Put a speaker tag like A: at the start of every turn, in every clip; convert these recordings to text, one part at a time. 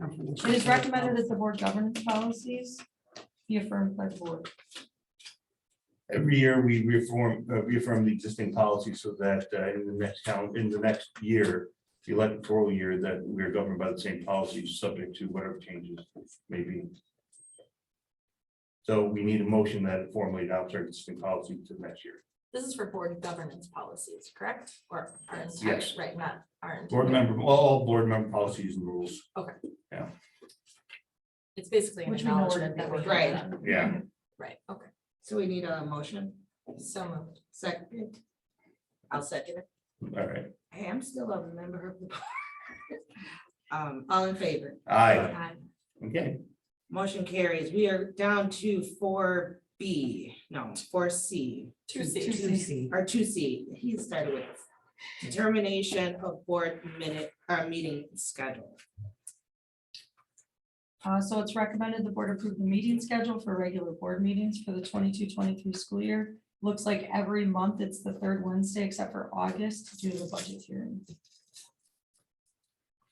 A: It is recommended that the board governance policies be affirmed by the board.
B: Every year, we reform, uh, reaffirm the existing policy so that uh, in the next town, in the next year, the electoral year, that we are governed by the same policies, subject to whatever changes may be. So we need a motion that formally adopts our existing policy to next year.
C: This is for board governance policies, correct? Or our entire,
B: Yes.
C: right, not our
B: Board
C: entire.
B: member, all board member policies and rules.
C: It's basically an
A: Which we know
C: acknowledgement that
A: that
C: we're.
A: we.
C: doing
D: Right.
C: that.
B: Yeah.
C: Right, okay,
D: So we need a motion,
C: so moved.
D: second. I'll second it.
B: All right.
D: Hey, I'm still a member of the. board. Um, all in favor?
B: Aye.
C: Aye.
B: Okay.
D: Motion carries. We are down to four B, no, four C,
C: Two
A: Two
C: C's.
A: C.
D: or two C. He started with determination of board minute, uh, meeting schedule.
A: Uh, so it's recommended the board approve the meeting schedule for regular board meetings for the 22-23 school year. Looks like every month it's the third Wednesday except for August due to the budget hearing.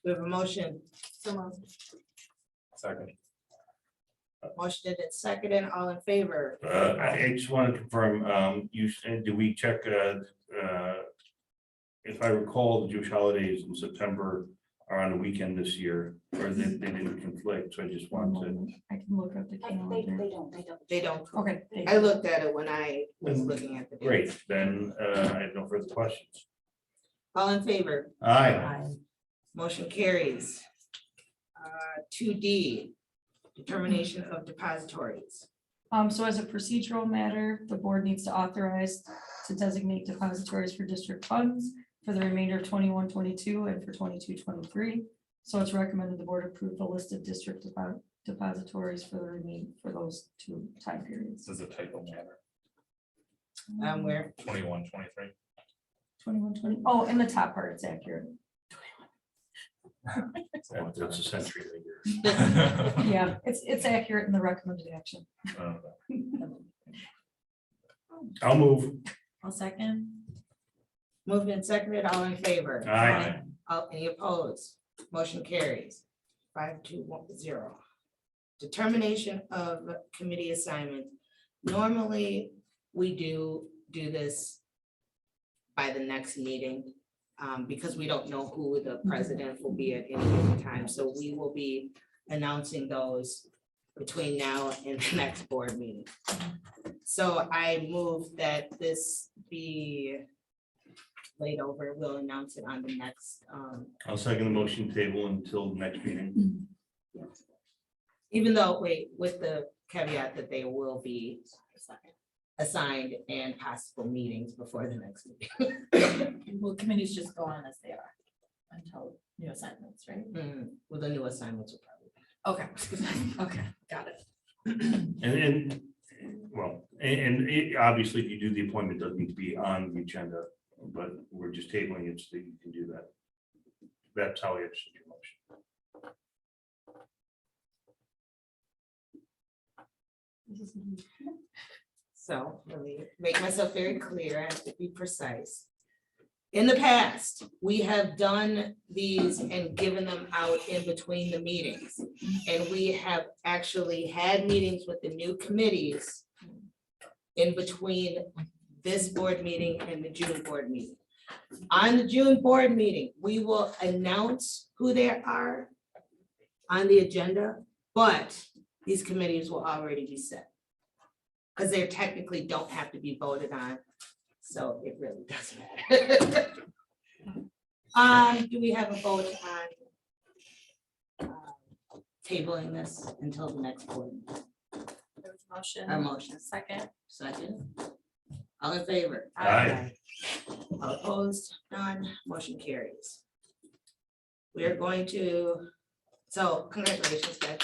D: We have a motion,
C: So moved.
B: Second.
D: motioned and seconded, all in favor?
B: Uh, I I just want to confirm, um, you, said, do we check, uh, uh, if I recall, the Jewish holidays in September are on a weekend this year, or they, they didn't conflict, so I just
A: One
B: wanted.
A: moment, I can look up the calendar.
E: don't, they don't.
D: They don't.
A: Okay. thank
D: I
A: you.
D: looked at it when I was looking at the. dates.
B: Great, then, uh, I have no further questions.
D: All in favor?
B: Aye.
D: Motion carries. Uh, Two D, determination of depositories.
A: Um, so as a procedural matter, the board needs to authorize to designate depositories for district funds for the remainder of 21-22 and for 22-23. So it's recommended the board approve the list of district depo- depositories for the remain, for those two time periods.
F: This is a typo matter,
D: Um, where,
F: twenty-one, twenty-three.
A: 21, 20 Oh, in the top part, it's accurate.
B: That- That's a century later.
A: Yeah, it's, it's accurate in the recommended action.
F: Uh,
B: I'll move.
C: I'll second.
D: moved and seconded, all in favor?
B: Aye.
D: All, any opposed? Motion carries. Five, two, one, zero. Determination of committee assignment. Normally, we do do this by the next meeting, um, because we don't know who the president will be at any given time. So we will be announcing those between now and the next board meeting. So I move that this be laid over. We'll announce it on the next, um,
B: I'll second the motion table until next meeting.
D: Even though, wait, with the caveat that they will be assigned and possible meetings before the next meeting.
C: Well, committees just go on as they are until new assignments, right?
D: Mm, Well, the new assignments will probably.
C: Okay, okay, got it.
B: And then, well, and, and it- obviously, if you do the appointment, it doesn't need to be on the agenda, but we're just tabling it so that you can do that. That's how I understand your motion.
D: So let me make myself very clear, I have to be precise. In the past, we have done these and given them out in between the meetings. And we have actually had meetings with the new committees in between this board meeting and the June board meeting. On the June board meeting, we will announce who there are on the agenda, but these committees will already be set. Because they technically don't have to be voted on, so it really doesn't matter. Um, do we have a vote on uh, tabling this until the next board,
C: There was a Motion.
D: our motion,
C: Second.
D: second? All in favor?
B: Aye.
D: All opposed, none, motion carries. We are going to, so congratulations, Beck.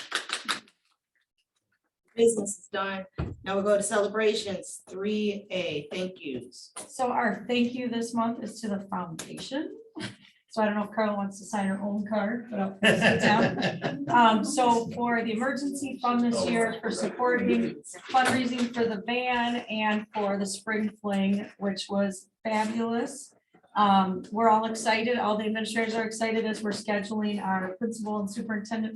D: Business is done. Now we'll go to celebrations, three A, thank yous.
A: So our thank you this month is to the foundation. So I don't know if Carla wants to sign her own card, but I'll pass it down. Um, so for the emergency fund this year, for supporting fundraising for the van and for the spring fling, which was fabulous. Um, we're all excited, all the administrators are excited as we're scheduling our principal and superintendent